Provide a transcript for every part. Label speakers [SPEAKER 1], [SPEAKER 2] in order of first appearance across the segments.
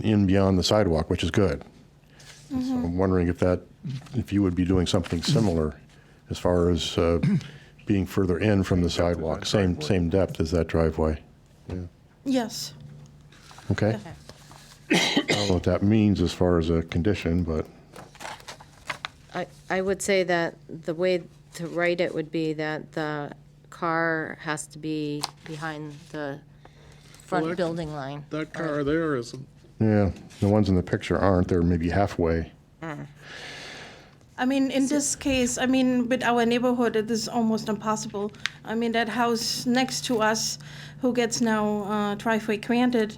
[SPEAKER 1] in beyond the sidewalk, which is good. So I'm wondering if that, if you would be doing something similar as far as uh, being further in from the sidewalk, same, same depth as that driveway.
[SPEAKER 2] Yes.
[SPEAKER 1] Okay? I don't know what that means as far as a condition, but
[SPEAKER 3] I, I would say that the way to write it would be that the car has to be behind the
[SPEAKER 4] Well,
[SPEAKER 3] front
[SPEAKER 4] that-
[SPEAKER 3] building line.
[SPEAKER 4] That car there isn't.
[SPEAKER 1] yeah, the ones in the picture aren't, they're maybe halfway.
[SPEAKER 2] I mean, in this case, I mean, with our neighborhood, it is almost impossible. I mean, that house next to us, who gets now uh, driveway granted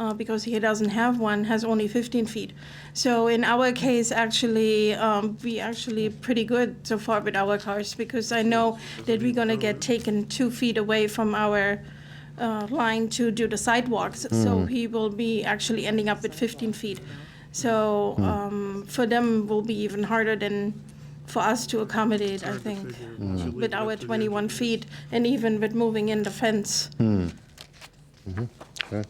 [SPEAKER 2] uh, because he doesn't have one, has only 15 feet. So in our case, actually, um, we actually pretty good so far with our cars because I know that we're gonna get taken two feet away from our uh, line to do the sidewalks. So he will be actually ending up with 15 feet. So um, for them will be even harder than for us to accommodate, I think, with our 21 feet and even with moving in the fence.
[SPEAKER 1] Okay?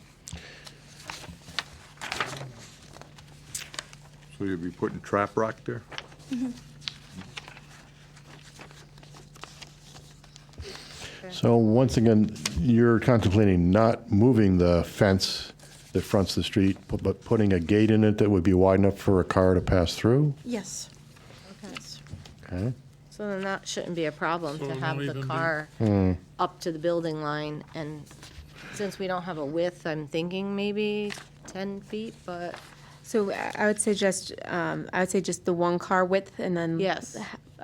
[SPEAKER 5] So you'll be putting trap rock there?
[SPEAKER 1] So once again, you're contemplating not moving the fence that fronts the street, bu- but putting a gate in it that would be wide enough for a car to pass through?
[SPEAKER 2] Yes. Yes.
[SPEAKER 1] Okay.
[SPEAKER 3] So then that shouldn't be a problem
[SPEAKER 4] So
[SPEAKER 3] to
[SPEAKER 4] it
[SPEAKER 3] have
[SPEAKER 4] won't
[SPEAKER 3] the
[SPEAKER 4] even be-
[SPEAKER 3] car
[SPEAKER 1] Hmm.
[SPEAKER 3] up to the building line. And since we don't have a width, I'm thinking maybe 10 feet, but
[SPEAKER 6] So I I would suggest, um, I would say just the one car width and then.
[SPEAKER 3] Yes.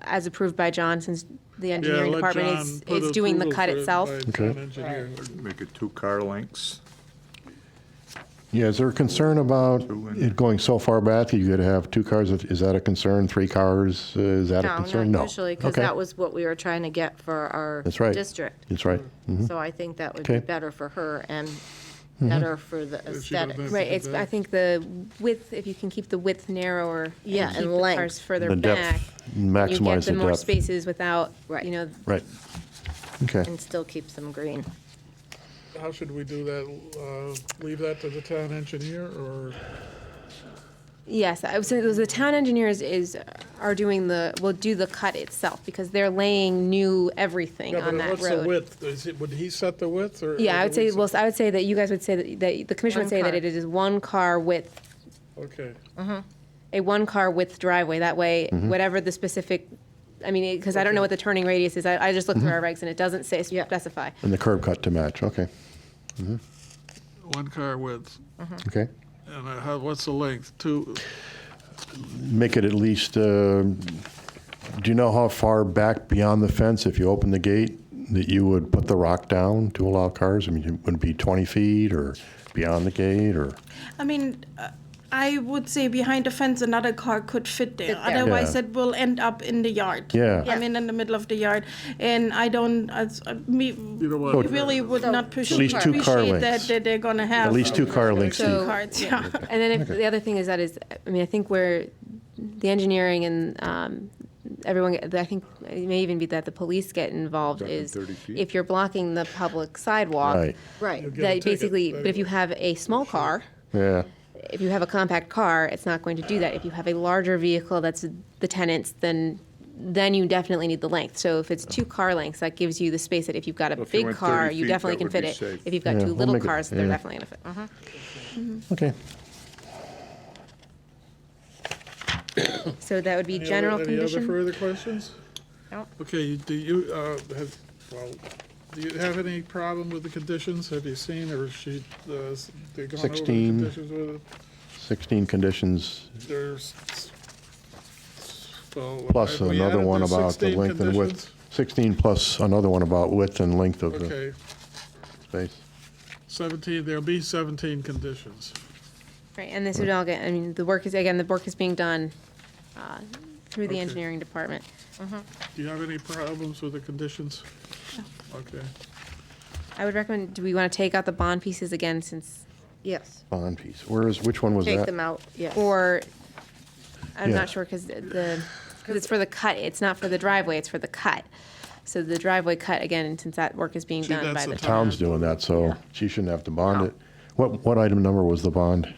[SPEAKER 6] As approved by John, since the
[SPEAKER 4] Yeah,
[SPEAKER 6] engineering
[SPEAKER 4] let
[SPEAKER 6] department
[SPEAKER 4] John
[SPEAKER 6] is,
[SPEAKER 4] put
[SPEAKER 6] is doing the
[SPEAKER 4] approval
[SPEAKER 6] cut
[SPEAKER 4] for it
[SPEAKER 6] itself.
[SPEAKER 4] by
[SPEAKER 1] Okay.
[SPEAKER 4] town engineer.
[SPEAKER 5] Make it two car lengths?
[SPEAKER 1] Yeah, is there a concern about
[SPEAKER 5] Two and-
[SPEAKER 1] it going so far back that you could have two cars? Is that a concern? Three cars? Uh, Is that a
[SPEAKER 3] no,
[SPEAKER 1] concern?
[SPEAKER 3] not
[SPEAKER 1] No.
[SPEAKER 3] usually, because
[SPEAKER 1] Okay.
[SPEAKER 3] that was what we were trying to get for our
[SPEAKER 1] That's right.
[SPEAKER 3] district.
[SPEAKER 1] That's right. Mhm.
[SPEAKER 3] So I think that would be
[SPEAKER 1] Okay. Mm-hmm.
[SPEAKER 3] better for her and better for the
[SPEAKER 4] she doesn't
[SPEAKER 3] aesthetics.
[SPEAKER 4] have-
[SPEAKER 6] Right, it's, I think the width, if you can keep the width narrower. and
[SPEAKER 3] Yeah, and
[SPEAKER 6] keep the
[SPEAKER 3] length.
[SPEAKER 6] Cars further
[SPEAKER 1] The
[SPEAKER 6] back.
[SPEAKER 1] depth,
[SPEAKER 6] You get
[SPEAKER 1] maximize
[SPEAKER 6] the
[SPEAKER 1] the
[SPEAKER 6] more
[SPEAKER 1] depth.
[SPEAKER 6] spaces without,
[SPEAKER 3] Right.
[SPEAKER 6] you know,
[SPEAKER 1] Right. Okay.
[SPEAKER 3] And still keeps them green.
[SPEAKER 4] How should we do that? Uh, Leave that to the town engineer or?
[SPEAKER 6] yes, I would say those, the town engineers is, are doing the, will do the cut itself because they're laying new everything
[SPEAKER 4] Yeah, but
[SPEAKER 6] on that road.
[SPEAKER 4] What's the width? Is it, would he set the width or?
[SPEAKER 6] Yeah,
[SPEAKER 4] or
[SPEAKER 6] I
[SPEAKER 4] do
[SPEAKER 6] would say,
[SPEAKER 4] we
[SPEAKER 6] well, I would say that you guys would say that, that the commission
[SPEAKER 3] One
[SPEAKER 6] would say that
[SPEAKER 3] car.
[SPEAKER 6] it is one car width,
[SPEAKER 4] Okay.
[SPEAKER 6] a one car width driveway. That way, whatever the specific, I mean, because I don't know what the turning radius is. I, I just looked through our regs and it doesn't say,
[SPEAKER 3] Yeah.
[SPEAKER 6] specify.
[SPEAKER 1] And the curb cut to match. Okay.
[SPEAKER 4] One car width.
[SPEAKER 3] Hmm.
[SPEAKER 1] Okay.
[SPEAKER 4] And uh, how, what's the length? Two,
[SPEAKER 1] Make it at least, uh, do you know how far back beyond the fence, if you open the gate, that you would put the rock down to allow cars? I mean, it would be 20 feet or beyond the gate or?
[SPEAKER 2] I mean, uh, I would say behind the fence, another car could fit there.
[SPEAKER 3] there.
[SPEAKER 2] Otherwise,
[SPEAKER 1] Yeah.
[SPEAKER 2] it will end up in the yard.
[SPEAKER 1] Yeah.
[SPEAKER 2] I mean, in the middle of the yard. And I don't, as- uh, me,
[SPEAKER 4] you know
[SPEAKER 1] Oh,
[SPEAKER 2] we
[SPEAKER 4] what?
[SPEAKER 2] really would
[SPEAKER 3] So-
[SPEAKER 2] not appreciate
[SPEAKER 3] At least two
[SPEAKER 1] car
[SPEAKER 2] appreciate
[SPEAKER 1] lengths.
[SPEAKER 2] that that they're gonna have.
[SPEAKER 1] At least two car lengths.
[SPEAKER 2] Two
[SPEAKER 1] deep.
[SPEAKER 6] So-
[SPEAKER 2] cars, yeah.
[SPEAKER 6] And then if, the other thing is that is, I mean, I think where the engineering and um, everyone, I think it may even be that the police get involved
[SPEAKER 5] Talking
[SPEAKER 6] is
[SPEAKER 5] 30 feet?
[SPEAKER 6] if you're blocking the public sidewalk,
[SPEAKER 1] Right,
[SPEAKER 3] Right.
[SPEAKER 4] get a
[SPEAKER 6] that
[SPEAKER 4] ticket
[SPEAKER 6] basically, but if you
[SPEAKER 4] anyway.
[SPEAKER 6] have a small car.
[SPEAKER 1] yeah.
[SPEAKER 6] if you have a compact car, it's not going to do that. If you have a larger vehicle that's the tenant's, then then you definitely need the length. So if it's two car lengths, that gives you the space that if you've got a
[SPEAKER 5] Well, if you
[SPEAKER 6] big
[SPEAKER 5] went
[SPEAKER 6] car,
[SPEAKER 5] 30
[SPEAKER 6] you
[SPEAKER 5] feet,
[SPEAKER 6] definitely
[SPEAKER 5] that
[SPEAKER 6] can
[SPEAKER 5] would
[SPEAKER 6] fit
[SPEAKER 5] be
[SPEAKER 6] it.
[SPEAKER 5] safe.
[SPEAKER 6] If you've got
[SPEAKER 1] Yeah,
[SPEAKER 6] two
[SPEAKER 1] we'll
[SPEAKER 6] little
[SPEAKER 1] make it-
[SPEAKER 6] cars, they're
[SPEAKER 1] yeah.
[SPEAKER 6] definitely going to fit.
[SPEAKER 1] Okay.
[SPEAKER 6] So that would be
[SPEAKER 4] Any other-
[SPEAKER 6] general
[SPEAKER 4] Any other
[SPEAKER 6] condition.
[SPEAKER 4] further questions?
[SPEAKER 3] Nope.
[SPEAKER 4] Okay, you- do you, uh, have, well, do you have any problem with the conditions? Have you seen, or she, uh, s- they gone over the
[SPEAKER 1] 16.
[SPEAKER 4] conditions with it?
[SPEAKER 1] 16 conditions,
[SPEAKER 4] There's, well.
[SPEAKER 1] plus
[SPEAKER 4] have we
[SPEAKER 1] another
[SPEAKER 4] added
[SPEAKER 1] one
[SPEAKER 4] the
[SPEAKER 1] about the
[SPEAKER 4] 16
[SPEAKER 1] length and width.
[SPEAKER 4] conditions?
[SPEAKER 1] 16 plus another one about width and length of the
[SPEAKER 4] Okay,
[SPEAKER 1] space.
[SPEAKER 4] 17, there'll be 17 conditions.
[SPEAKER 6] Right, and this would all get, I mean, the work is, again, the work is being done uh, through the
[SPEAKER 4] Okay.
[SPEAKER 6] engineering department.
[SPEAKER 4] Do you have any problems with the conditions? Okay,
[SPEAKER 6] I would recommend, do we want to take out the bond pieces again since,
[SPEAKER 3] Yes.
[SPEAKER 1] Bond piece. Where is, which one was that?
[SPEAKER 3] Take them out, yes.
[SPEAKER 6] or, I'm
[SPEAKER 1] Yeah.
[SPEAKER 6] not sure, because the, because it's for the cut, it's not for the driveway, it's for the cut. So the driveway cut, again, and since that work is being
[SPEAKER 4] See,
[SPEAKER 6] done
[SPEAKER 4] that's
[SPEAKER 6] by
[SPEAKER 4] the
[SPEAKER 6] the
[SPEAKER 4] town.
[SPEAKER 6] town.
[SPEAKER 1] Town's doing that, so she shouldn't have to bond it. What, what item number was the bond?